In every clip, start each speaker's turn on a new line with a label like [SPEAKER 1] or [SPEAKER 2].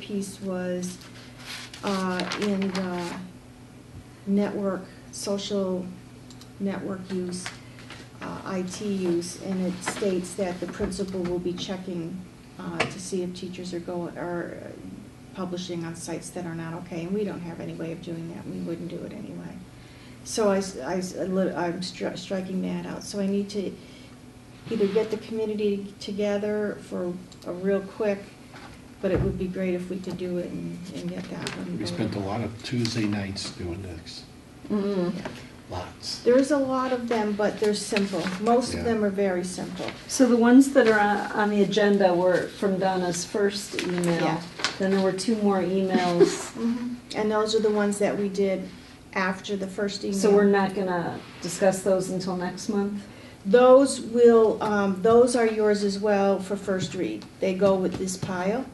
[SPEAKER 1] piece was uh, in the network, social network use, uh, IT use, and it states that the principal will be checking uh, to see if teachers are going, are uh, publishing on sites that are not okay, and we don't have any way of doing that, we wouldn't do it anyway. So I, am striking that out, so I need to either get the community together for a real quick, but it would be great if we could do it and, and get that one.
[SPEAKER 2] We spent a lot of Tuesday nights doing this,
[SPEAKER 3] Mm.
[SPEAKER 2] lots.
[SPEAKER 1] There's a lot of them, but they're simple. Most of
[SPEAKER 2] Yeah.
[SPEAKER 1] them are very simple.
[SPEAKER 3] So the ones that are on on the agenda were from Donna's first email.
[SPEAKER 1] Yeah.
[SPEAKER 3] Then there were two more emails.
[SPEAKER 1] And those are the ones that we did after the first email.
[SPEAKER 3] So we're not gonna discuss those until next month?
[SPEAKER 1] Those will, um, those are yours as well for first read. They go with this pile,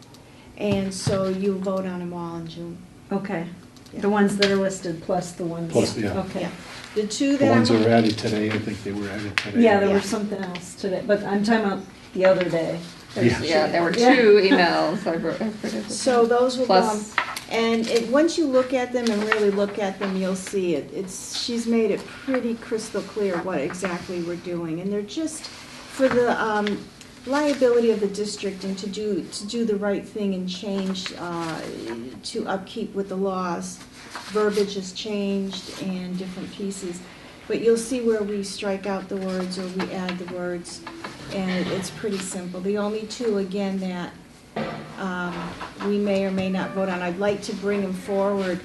[SPEAKER 1] and so you vote on them all in June.
[SPEAKER 3] Okay.
[SPEAKER 1] Yeah.
[SPEAKER 3] The ones that are listed plus the ones.
[SPEAKER 2] Plus, yeah.
[SPEAKER 3] Okay.
[SPEAKER 1] Yeah. The two
[SPEAKER 2] The
[SPEAKER 1] that I'm.
[SPEAKER 2] ones that were added today, I think they were added today.
[SPEAKER 3] Yeah, there
[SPEAKER 1] Yeah.
[SPEAKER 3] was something else today, but I'm talking about the other day.
[SPEAKER 2] Yeah.
[SPEAKER 4] Yeah, there were
[SPEAKER 3] Yeah.
[SPEAKER 4] two emails I wrote. I forget the-
[SPEAKER 1] So those will come,
[SPEAKER 4] Plus,
[SPEAKER 1] and it, once you look at them and really look at them, you'll see it, it's, she's made it pretty crystal clear what exactly we're doing, and they're just for the, um, liability of the district and to do, to do the right thing and change, uh, to upkeep with the laws. Verbiage has changed and different pieces, but you'll see where we strike out the words or we add the words, and it's pretty simple. The only two, again, that um, we may or may not vote on. I'd like to bring them forward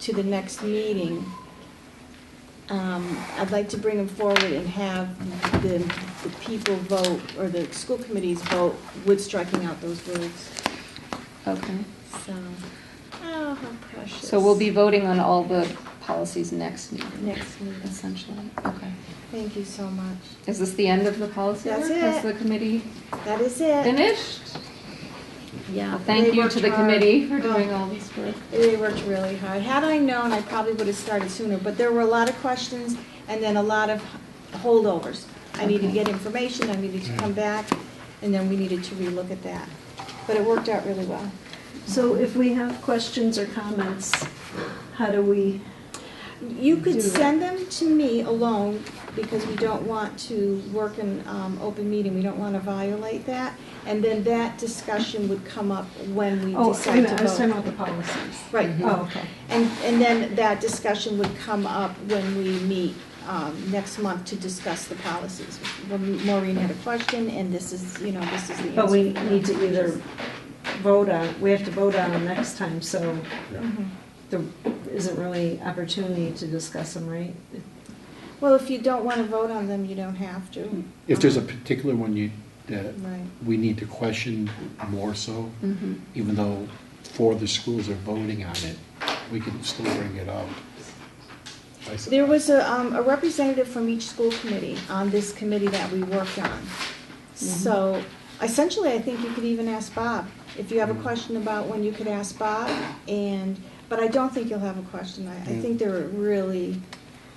[SPEAKER 1] to the next meeting. Um, I'd like to bring them forward and have the, the people vote, or the school committees vote with striking out those words,
[SPEAKER 4] okay.
[SPEAKER 1] so. Oh, how precious.
[SPEAKER 4] So we'll be voting on all the policies next meeting,
[SPEAKER 1] Next meeting.
[SPEAKER 4] essentially. Okay.
[SPEAKER 1] Thank you so much.
[SPEAKER 4] Is this the end of the policy
[SPEAKER 1] That's
[SPEAKER 4] work? Has
[SPEAKER 1] it.
[SPEAKER 4] the committee
[SPEAKER 1] That is it.
[SPEAKER 4] finished?
[SPEAKER 1] Yeah.
[SPEAKER 4] Well, Thank
[SPEAKER 1] they
[SPEAKER 4] you
[SPEAKER 1] worked
[SPEAKER 4] to the
[SPEAKER 1] hard.
[SPEAKER 4] committee for
[SPEAKER 1] Oh.
[SPEAKER 4] doing all this work.
[SPEAKER 1] They worked really hard. Had I known, I probably would have started sooner, but there were a lot of questions and then a lot of holdovers. I needed to
[SPEAKER 4] Okay.
[SPEAKER 1] get information, I needed to
[SPEAKER 3] Mm.
[SPEAKER 1] come back, and then we needed to relook at that. But it worked out really well.
[SPEAKER 3] So if we have questions or comments, how do we?
[SPEAKER 1] You could
[SPEAKER 3] Mm. Do that.
[SPEAKER 1] send them to me alone, because we don't want to work in um, open meeting, we don't want to violate that. And then that discussion would come up when we
[SPEAKER 3] Oh, wait a
[SPEAKER 1] decide
[SPEAKER 3] minute, I
[SPEAKER 1] to
[SPEAKER 3] was talking
[SPEAKER 1] vote. Mm-hmm.
[SPEAKER 3] about the policies.
[SPEAKER 1] Right,
[SPEAKER 3] Oh, okay.
[SPEAKER 1] And, and then that discussion would come up when we meet um, next month to discuss the policies. When Maureen had a question, and this is, you know, this is the answer.
[SPEAKER 3] But we need to either vote on, we have to vote on them next time, so
[SPEAKER 1] Mhm.
[SPEAKER 3] there isn't really opportunity to discuss them, right?
[SPEAKER 1] Well, if you don't want to vote on them, you don't have to.
[SPEAKER 2] If there's a particular one you, that
[SPEAKER 1] Right.
[SPEAKER 2] we need to question more so,
[SPEAKER 4] Mhm.
[SPEAKER 2] even though four of the schools are voting on it, we can still bring it up. I s-
[SPEAKER 1] There was a, um, a representative from each school committee on this committee that we worked on. So essentially, I think you could even ask Bob. If you have a question about when you could ask Bob and, but I don't think you'll have a question. I, I think they're really,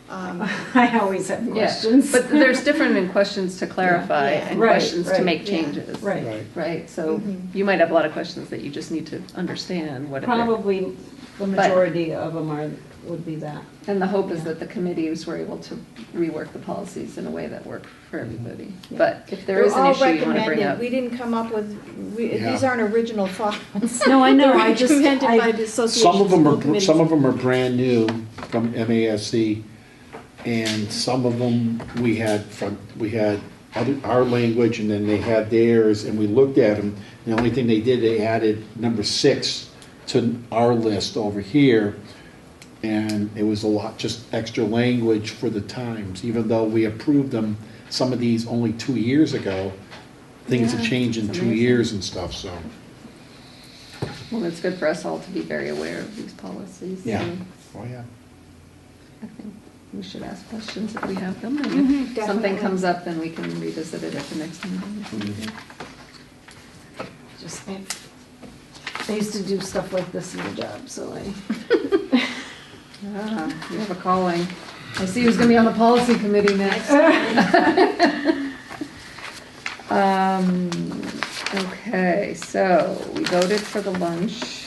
[SPEAKER 1] um,
[SPEAKER 3] I always have
[SPEAKER 4] Yeah,
[SPEAKER 3] questions.
[SPEAKER 4] but there's different in questions to clarify
[SPEAKER 1] Yeah.
[SPEAKER 4] and
[SPEAKER 3] Right,
[SPEAKER 4] questions to
[SPEAKER 3] right,
[SPEAKER 4] make
[SPEAKER 1] yeah.
[SPEAKER 4] changes.
[SPEAKER 3] Right,
[SPEAKER 2] Right,
[SPEAKER 4] Right, so
[SPEAKER 1] Mhm.
[SPEAKER 4] you might have a lot of questions that you just need to understand what it is.
[SPEAKER 3] probably the majority of them are, would be that.
[SPEAKER 4] And the hope is
[SPEAKER 3] Yeah.
[SPEAKER 4] that the committees were able to rework the policies in a way that worked for everybody.
[SPEAKER 3] Yeah.
[SPEAKER 4] But if there
[SPEAKER 1] they're
[SPEAKER 4] is an
[SPEAKER 1] all
[SPEAKER 4] issue you want to bring
[SPEAKER 1] recommended.
[SPEAKER 4] up.
[SPEAKER 1] We didn't come up with, we,
[SPEAKER 2] Yeah.
[SPEAKER 1] these aren't original thoughts.
[SPEAKER 3] No, I know, I just,
[SPEAKER 1] Recommended by
[SPEAKER 3] I,
[SPEAKER 1] the Association
[SPEAKER 2] Some
[SPEAKER 1] of
[SPEAKER 2] of them
[SPEAKER 1] School
[SPEAKER 2] are,
[SPEAKER 1] Committees.
[SPEAKER 2] some of them are brand new from MASC, and some of them, we had from, we had other, our language, and then they had theirs, and we looked at them. The only thing they did, they added number six to our list over here, and it was a lot, just extra language for the times, even though we approved them, some of these only two years ago. Things have
[SPEAKER 4] Yeah,
[SPEAKER 2] changed in
[SPEAKER 4] it's
[SPEAKER 2] two
[SPEAKER 4] amazing.
[SPEAKER 2] years and stuff, so.
[SPEAKER 4] Well, it's good for us all to be very aware of these policies.
[SPEAKER 2] Yeah.
[SPEAKER 4] and
[SPEAKER 2] Oh, yeah.
[SPEAKER 4] I think we should ask questions if we have them, and if something
[SPEAKER 1] Mm-hmm, definitely.
[SPEAKER 4] comes up, then we can revisit it at the next meeting.
[SPEAKER 2] Mhm.
[SPEAKER 3] just, I used to do stuff like this in my job, so I.
[SPEAKER 4] Ah, you have a calling. I see who's gonna be on the policy committee next. Um, okay, so we voted for the lunch.